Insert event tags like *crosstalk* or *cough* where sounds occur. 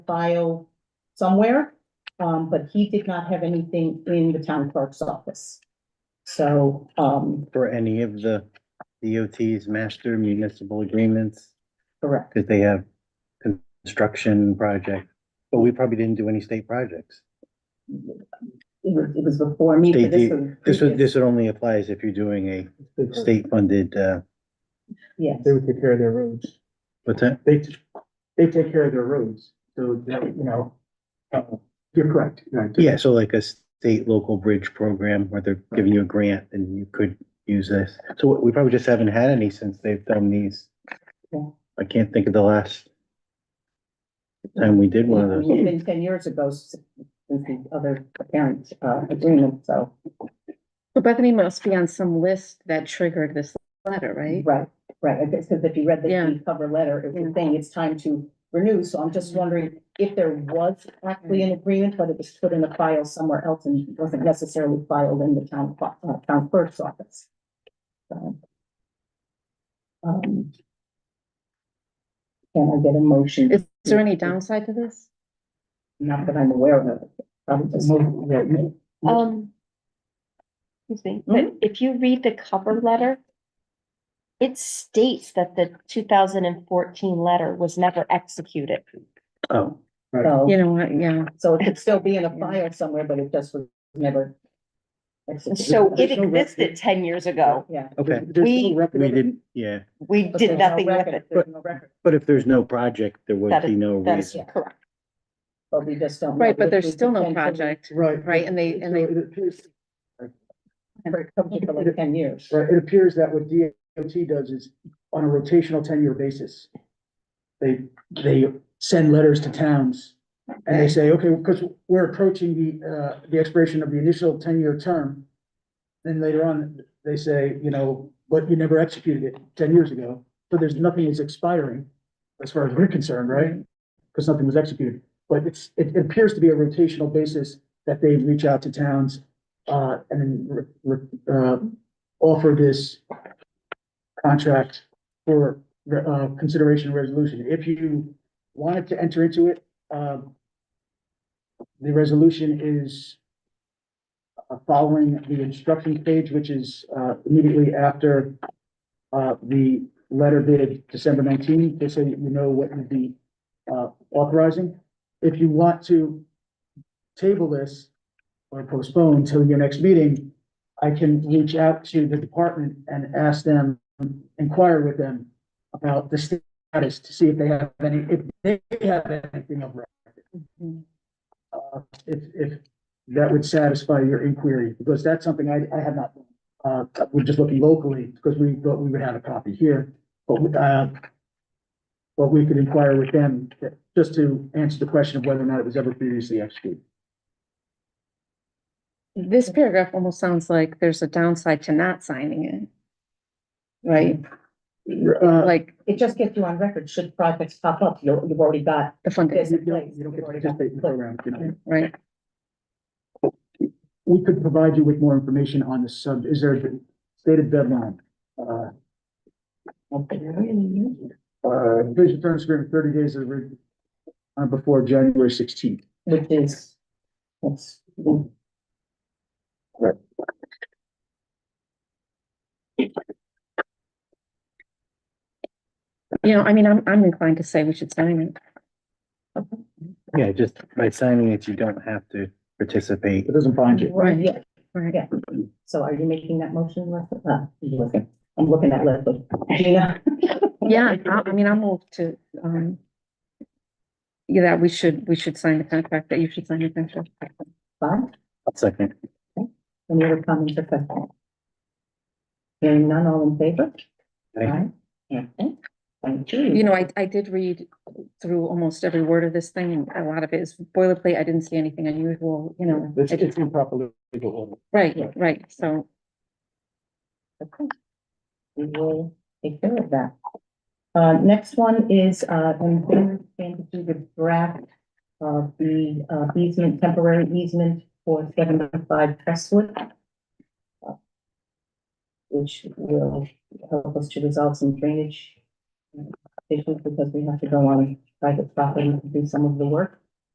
file somewhere. Um, but he did not have anything in the town clerk's office. So, um, for any of the DOT's master municipal agreements, correct, because they have construction project, but we probably didn't do any state projects. it was, it was before me, but this They was. This would, this would only applies if you're doing a state-funded, uh, Yes, They would take care of their roads. what's that? They, t- they take care of their roads, so that, you know. uh, You're correct. you know, Yeah, so like a state local bridge program where they're giving you a grant and you could use this. So we probably just haven't had any since they've done these. Yeah. I can't think of the last time we did one of those. it's been ten years ago since the other parent, uh, agreement, so, Well, Bethany must be on some list that triggered this letter, right? right, right, I guess, because if you read Yeah. the cover letter, it was saying it's time to renew, so I'm just wondering if there was actually an agreement, but it was put in a file somewhere else and wasn't necessarily filed in the town, cl- uh, town clerk's office. So. Um, Can I get a motion? Is there any downside to this? Not that I'm aware of, probably just. Yeah, yeah. Um. Excuse me, but Mhm. if you read the cover letter. It states that the two thousand and fourteen letter was never executed. Oh, So- You know what, yeah, So it could still be in a file somewhere, but it just was never. executed. So it There's no record. existed ten years ago. Yeah. okay. There's We- no record We of it. didn't, yeah. We But did there's no nothing with record- it. There's no record, But if there's no project, there would That be no That is reason. correct. but we just don't. know. right, but Which there's was still no ten- project, Right. right, and they- and they- So it appears- for- something for like Ten years. Right, it appears that what DOT does is on a rotational ten-year basis. They, they send letters to towns and they say, okay, because we're approaching the, uh, the expiration of the initial ten-year term. Then later on, they say, you know, but you never executed it ten years ago, so there's nothing is expiring as far as we're concerned, right? Because nothing was executed, but it's, it appears to be a rotational basis that they reach out to towns, uh, and then, re- re- uh, offer this contract for, uh, consideration and resolution. If you wanted to enter into it, um, the resolution is uh, following the instructions page, which is, uh, immediately after, uh, the letter dated December nineteenth, just so that you know what you'd be, uh, authorizing. If you want to table this or postpone till your next meeting, I can reach out to the department and ask them, inquire with them about the status to see if they have any, if they have anything of record. Uh, if, if that would satisfy your inquiry, because that's something I, I have not, uh, we're just looking locally, because we thought we would have a copy here, but, we, uh, but we could inquire with them, just to answer the question of whether or not it was ever previously executed. this paragraph almost sounds like there's a downside to not signing it. Right, Uh, like It just gets you on record, should projects pop up, you, you've already got the funding, this You in don't, place. you don't get You've to already got- participate in the program, you know. right, we could provide you with more information on the sub, is there a stated deadline? Uh, uh, vision terms agreement, thirty days of, re- uh, before January sixteenth. Which is, it's, you know, I mean, I'm, I'm inclined to say we should sign it. Yeah, just by signing it, you don't have to participate. It doesn't bind you. right, yeah, Right. yeah. So are you making that motion, Leslie? Uh, you looking- I'm looking at Leslie. *laughs* Gina? Yeah, I, I mean, I'm all to, um, yeah, that we should, we should sign the contract, that you should sign the contract. Bob, Second, any other comments or questions? Hearing none, all in favor? Aye. Aye. Okay. Thank you. You know, I, I did read through almost every word of this thing, and a lot of it is boilerplate, I didn't see anything unusual, you know. It's, I did- it's improperly legal order. Right, yeah. right, so, Okay. We will take care of that. Uh, next one is, uh, when Baylor came to do the draft of the uh, easement, temporary easement for seventy-five Crestwood. uh, Which will help us to resolve some drainage issues because we have to go on private property to do some of the work.